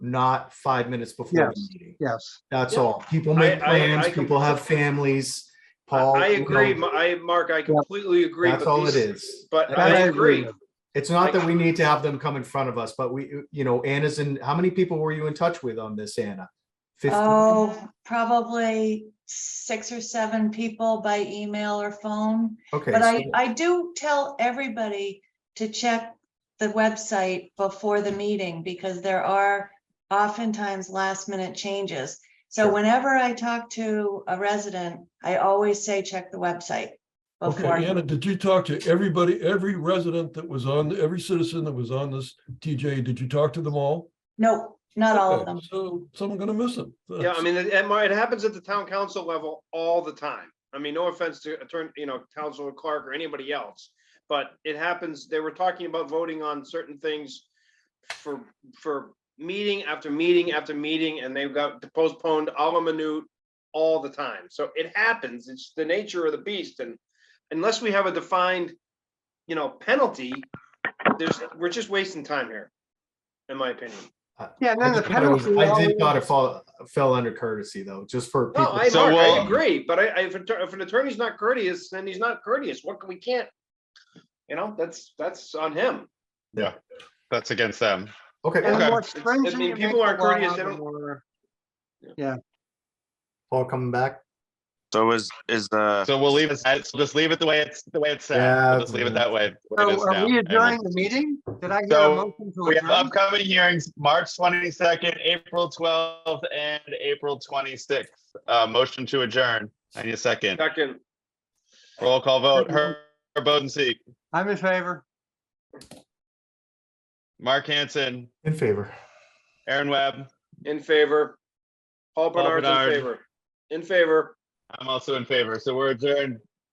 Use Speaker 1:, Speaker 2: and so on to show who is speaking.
Speaker 1: not five minutes before the
Speaker 2: Yes.
Speaker 1: meeting.
Speaker 2: yes.
Speaker 1: That's
Speaker 3: Yeah.
Speaker 1: all. People
Speaker 4: I-
Speaker 1: make
Speaker 4: I- I
Speaker 1: plans, people have
Speaker 4: completely-
Speaker 1: families. Paul.
Speaker 4: I
Speaker 1: you know,
Speaker 4: agree, Ma- I, Mark, I completely agree.
Speaker 1: That's
Speaker 4: but
Speaker 1: all it
Speaker 4: these-
Speaker 1: is.
Speaker 4: But
Speaker 1: That
Speaker 4: I
Speaker 2: I agree
Speaker 4: agree.
Speaker 2: with.
Speaker 1: It's not
Speaker 4: I-
Speaker 1: that we need to have them come in front of us, but we, you know, Anna's in, how many people were you in touch with on this, Anna? Fifteen?
Speaker 5: Oh, probably six or seven people by email or phone.
Speaker 1: Okay,
Speaker 5: But I,
Speaker 1: so-
Speaker 5: I do tell everybody to check the website before the meeting because there are oftentimes last minute changes. So
Speaker 1: Sure.
Speaker 5: whenever I talk to a resident, I always say, check the website.
Speaker 6: Okay,
Speaker 5: before.
Speaker 6: Anna, did you talk to everybody, every resident that was on, every citizen that was on this TJ? Did you talk to them all?
Speaker 5: No, not all of
Speaker 6: Okay,
Speaker 5: them.
Speaker 6: So someone gonna miss them.
Speaker 4: Yeah, I mean, it, it might- it happens at the town council level all the time. I mean, no offense to attorney, you know, Councilor Clark or anybody else. But it happens, they were talking about voting on certain things for, for meeting after meeting after meeting, and they've got postponed all a minute all the time. So it happens. It's the nature of the beast. And unless we have a defined, you know, penalty, there's, we're just wasting time here, in my opinion.
Speaker 2: Yeah,
Speaker 1: I
Speaker 2: and then the
Speaker 1: just thought it was-
Speaker 2: penalty.
Speaker 1: I did
Speaker 2: always-
Speaker 1: thought it fall, fell under courtesy though, just for
Speaker 4: No,
Speaker 1: people.
Speaker 4: I,
Speaker 7: So,
Speaker 4: Mark, I
Speaker 7: uh,
Speaker 4: agree, but I, I- if, an atter- if an attorney's not courteous, then he's not courteous. What can, we can't. You know, that's, that's on him.
Speaker 7: That's against them.
Speaker 1: Okay,
Speaker 2: And the
Speaker 7: Okay.
Speaker 2: more
Speaker 4: It's- I
Speaker 2: stringent
Speaker 4: mean,
Speaker 2: you
Speaker 4: people
Speaker 2: make the
Speaker 4: aren't courteous,
Speaker 2: law,
Speaker 4: they
Speaker 2: the
Speaker 4: don't-
Speaker 2: more-
Speaker 1: Paul coming back.
Speaker 8: So is, is the,
Speaker 7: So we'll leave it, at- we'll just leave it the way it's, the way it's set.
Speaker 1: Yeah,
Speaker 7: We'll just leave it that way. what it is
Speaker 2: So
Speaker 7: now,
Speaker 2: are we
Speaker 7: and we'll-
Speaker 2: adjourning the meeting? Did I hear a
Speaker 7: So,
Speaker 2: motion to
Speaker 7: We have
Speaker 2: adjourn?
Speaker 7: upcoming hearings, March twenty-second, April twelfth, and April twenty-sixth. Uh, motion to adjourn. I need a second.
Speaker 4: Second,
Speaker 7: Roll call vote. Herb Bodenseek,
Speaker 2: I'm in favor.
Speaker 7: Mark Hanson,
Speaker 1: In favor.
Speaker 7: Aaron Webb.
Speaker 4: in favor. Paul
Speaker 7: Paul
Speaker 4: Bernard's in
Speaker 7: Bernard.
Speaker 4: favor. In favor.
Speaker 7: I'm also in favor. So we're adjourned.